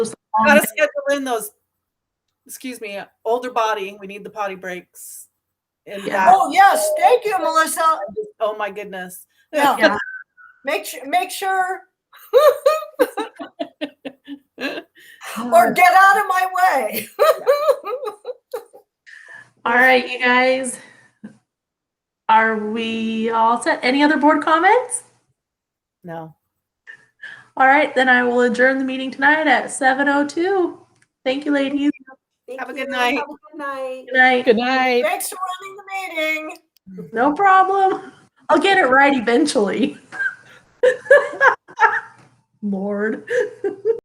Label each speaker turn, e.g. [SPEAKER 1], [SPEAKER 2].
[SPEAKER 1] Um,
[SPEAKER 2] Gotta schedule in those, excuse me, older body. We need the potty breaks. And
[SPEAKER 3] Yeah.
[SPEAKER 2] that,
[SPEAKER 4] Oh, yes, thank you, Melissa.
[SPEAKER 2] oh my goodness.
[SPEAKER 4] Yeah.
[SPEAKER 3] Yeah.
[SPEAKER 4] Make sure, make sure, or
[SPEAKER 3] All
[SPEAKER 4] get out of my way.
[SPEAKER 3] right, you guys. Are we all set? Any other board comments?
[SPEAKER 2] No.
[SPEAKER 3] All right, then I will adjourn the meeting tonight at 7:02. Thank you, ladies.
[SPEAKER 2] Have a good night.
[SPEAKER 4] Have a good night.
[SPEAKER 3] Good night.
[SPEAKER 1] Good night.
[SPEAKER 4] Thanks for running the meeting.
[SPEAKER 3] No problem. I'll get it right eventually. Lord.